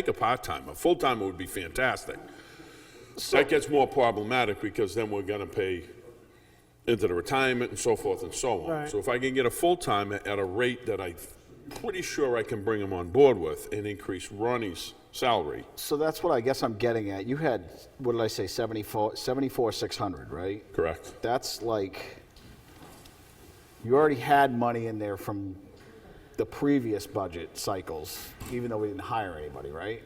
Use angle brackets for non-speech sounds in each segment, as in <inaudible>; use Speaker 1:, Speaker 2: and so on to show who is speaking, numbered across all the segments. Speaker 1: Take a part-time, a full-timer would be fantastic. That gets more problematic because then we're gonna pay into the retirement and so forth and so on.
Speaker 2: Right.
Speaker 1: So if I can get a full-timer at a rate that I'm pretty sure I can bring him on board with and increase Ronnie's salary,
Speaker 3: So that's what I guess I'm getting at. You had, what did I say, 74, 74 600, right?
Speaker 1: correct?
Speaker 3: That's like, you already had money in there from the previous budget cycles, even though we didn't hire anybody, right?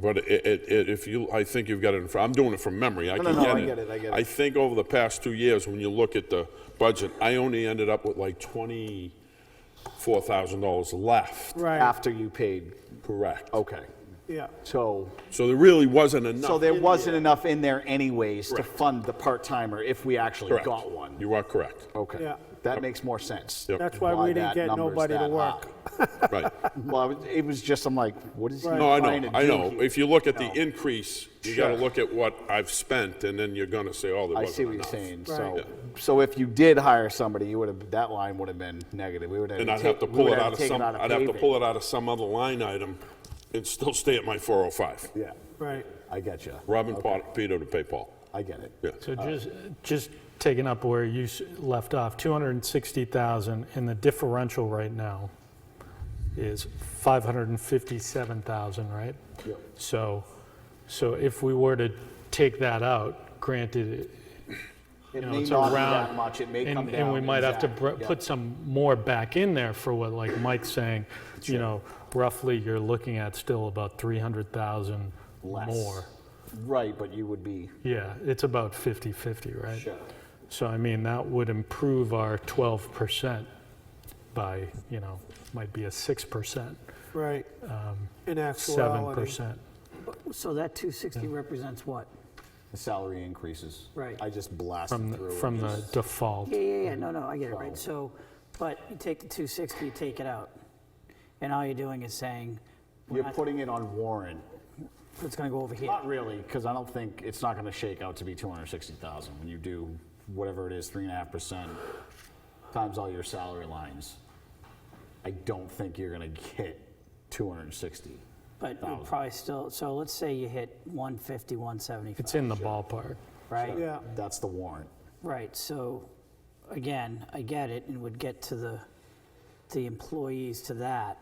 Speaker 1: But it, it, it, if you, I think you've got it in, fr- I'm doing it from memory, I
Speaker 3: No,
Speaker 1: can
Speaker 3: no,
Speaker 1: get it.
Speaker 3: no, I get it, I get it.
Speaker 1: I think over the past two years, when you look at the budget, I only ended up with like twenty-four thousand dollars left.
Speaker 2: Right,
Speaker 3: After you paid,
Speaker 1: Correct.
Speaker 3: okay.
Speaker 2: yeah.
Speaker 3: So,
Speaker 1: So there really wasn't enough.
Speaker 3: so there wasn't enough in there anyways to
Speaker 1: Correct.
Speaker 3: fund the part-timer if we actually
Speaker 1: Correct.
Speaker 3: got one.
Speaker 1: You are
Speaker 3: <laughs>
Speaker 1: correct,
Speaker 3: Okay,
Speaker 2: Yeah.
Speaker 3: that makes more sense.
Speaker 1: Yep.
Speaker 2: That's why we didn't
Speaker 3: that
Speaker 2: get
Speaker 3: number's
Speaker 2: nobody to
Speaker 3: that
Speaker 2: work.
Speaker 3: high.
Speaker 1: right.
Speaker 3: Well, I was- it was just, I'm like, what is he
Speaker 1: No, I
Speaker 3: trying to
Speaker 1: know,
Speaker 3: do
Speaker 1: I know.
Speaker 3: here?
Speaker 1: If you look at the increase, you gotta
Speaker 3: Sure.
Speaker 1: look at what I've spent, and then you're gonna say, oh, there wasn't
Speaker 3: I
Speaker 1: enough.
Speaker 3: see what you're saying. So,
Speaker 2: Right.
Speaker 3: so if you did hire somebody, you would have, that line would have been negative. We would have.
Speaker 1: And I'd
Speaker 3: ta-
Speaker 1: have to
Speaker 3: we
Speaker 1: pull
Speaker 3: would
Speaker 1: it
Speaker 3: have
Speaker 1: out of
Speaker 3: taken
Speaker 1: some,
Speaker 3: out of
Speaker 1: I'd have to
Speaker 3: paving.
Speaker 1: pull it out of some other line item and still stay at my 405.
Speaker 3: Yeah,
Speaker 2: Right,
Speaker 3: I get you.
Speaker 1: Robbing Pot- Peter to pay Paul.
Speaker 3: I get it.
Speaker 1: Yeah.
Speaker 4: So just, just taking up where you s- left off, 260,000, and the differential right now is 557,000, right? So, so if we were to take that out, granted,
Speaker 3: It
Speaker 4: you know,
Speaker 3: may
Speaker 4: it's
Speaker 3: not
Speaker 4: around.
Speaker 3: be that much. It may
Speaker 4: and-
Speaker 3: come down.
Speaker 4: And we might have to br-
Speaker 3: exact- yeah.
Speaker 4: put some more back in there for what, like Mike's saying, you know, roughly, you're looking at still about 300,000
Speaker 3: Less.
Speaker 4: more.
Speaker 3: Right, but you would be.
Speaker 4: Yeah, it's about 50/50, right?
Speaker 3: Sure.
Speaker 4: So I mean, that would improve our 12% by, you know, might be a 6%,
Speaker 2: right. In actuality.
Speaker 4: 7%.
Speaker 5: So that 260 represents what?
Speaker 3: The salary increases.
Speaker 5: Right.
Speaker 3: I just
Speaker 4: From,
Speaker 3: blasted through.
Speaker 4: the-
Speaker 3: it.
Speaker 4: from the
Speaker 3: Just-
Speaker 4: default.
Speaker 5: Yeah, yeah, yeah, no, no, I get it, right, so, but you take the 260, you take it out, and all you're doing is saying, we're
Speaker 3: You're
Speaker 5: not-
Speaker 3: putting it on Warren.
Speaker 5: it's gonna go over here.
Speaker 3: Not really, because I don't think, it's not going to shake out to be 260,000 when you do whatever it is, three and a half percent times all your salary lines. I don't think you're going to get 260.
Speaker 5: But you probably still, so let's say you hit 150, 175,
Speaker 4: It's in the ballpark.
Speaker 5: right?
Speaker 2: Yeah,
Speaker 3: That's the warrant.
Speaker 5: Right, so, again, I get it, and would get to the, the employees to that,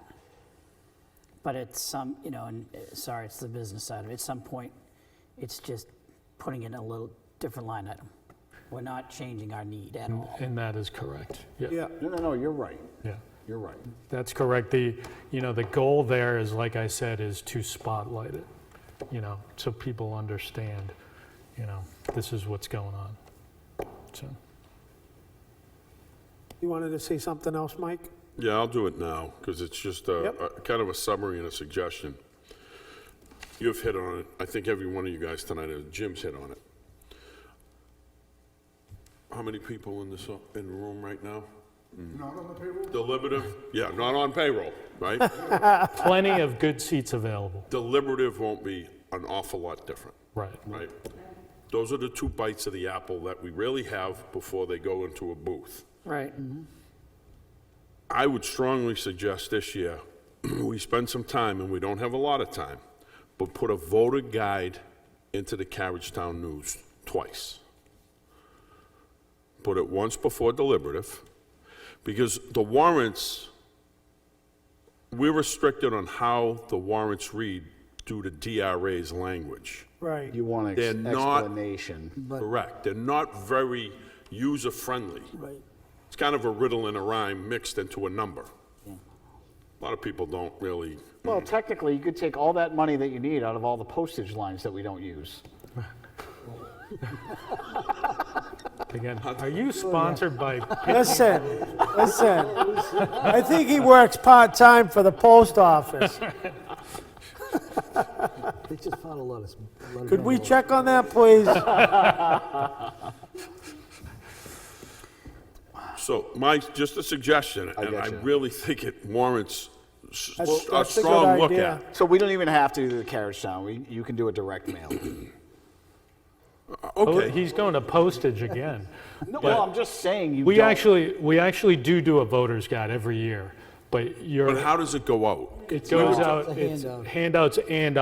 Speaker 5: but at some, you know, and, uh, sorry, it's the business side of it, at some point, it's just putting it in a little different line item. We're not changing our need at all.
Speaker 4: And that is correct. Yeah,
Speaker 2: yeah,
Speaker 3: No, no, no, you're right.
Speaker 4: yeah.
Speaker 3: You're right.
Speaker 4: That's correct. The, you know, the goal there is, like I said, is to spotlight it, you know, so people understand, you know, this is what's going on. So.
Speaker 2: you wanted to say something else, Mike?
Speaker 1: Yeah, I'll do it now, because it's just a,
Speaker 2: Yep.
Speaker 1: a- kind of a summary and a suggestion. You've hit on it, I think every one of you guys tonight, uh, Jim's hit on it. How many people in this, uh, in the room right now?
Speaker 6: Not on the payroll?
Speaker 1: Deliberative, yeah, not on payroll, right?
Speaker 4: Plenty of good seats available.
Speaker 1: Deliberative won't be an awful lot different.
Speaker 4: Right.
Speaker 1: right? Those are the two bites of the apple that we really have before they go into a booth.
Speaker 5: Right.
Speaker 1: I would strongly suggest this year, <clears throat> we spend some time, and we don't have a lot of time, but put a voter guide into the Carriagetown News twice. Put it once before deliberative, because the warrants, we're restricted on how the warrants read due to DRA's language.
Speaker 2: Right,
Speaker 3: You want
Speaker 1: They're
Speaker 3: an
Speaker 1: not-
Speaker 3: explanation.
Speaker 1: Correct. They're not very user-friendly.
Speaker 5: Right.
Speaker 1: It's kind of a riddle and a rhyme mixed into a number. A lot of people don't really,
Speaker 3: Well, technically, you could take all that money that you need out of all the postage lines that we don't use.
Speaker 4: Again, are you sponsored by
Speaker 2: listen, listen. I think he works part-time for the post office.
Speaker 7: They just found a lot of. a lot of
Speaker 2: Could we
Speaker 7: animals.
Speaker 2: check on that, please?
Speaker 1: so my, just a suggestion, and I
Speaker 3: gotcha.
Speaker 1: really think it warrants s-
Speaker 2: That's-
Speaker 1: a
Speaker 2: that's a good
Speaker 1: strong look
Speaker 2: idea.
Speaker 1: at.
Speaker 3: So we don't even have to do the carriage town. We, you can do a direct mail.
Speaker 4: Oh,
Speaker 1: Okay,
Speaker 4: He's going to postage again.
Speaker 3: No, well, I'm just saying you
Speaker 4: We
Speaker 3: don't-
Speaker 4: actually, we actually do do a voter's guide every year. But you're,
Speaker 8: But how does it go out?
Speaker 4: it goes out,
Speaker 1: It's a
Speaker 4: it's
Speaker 1: handout.
Speaker 4: handouts and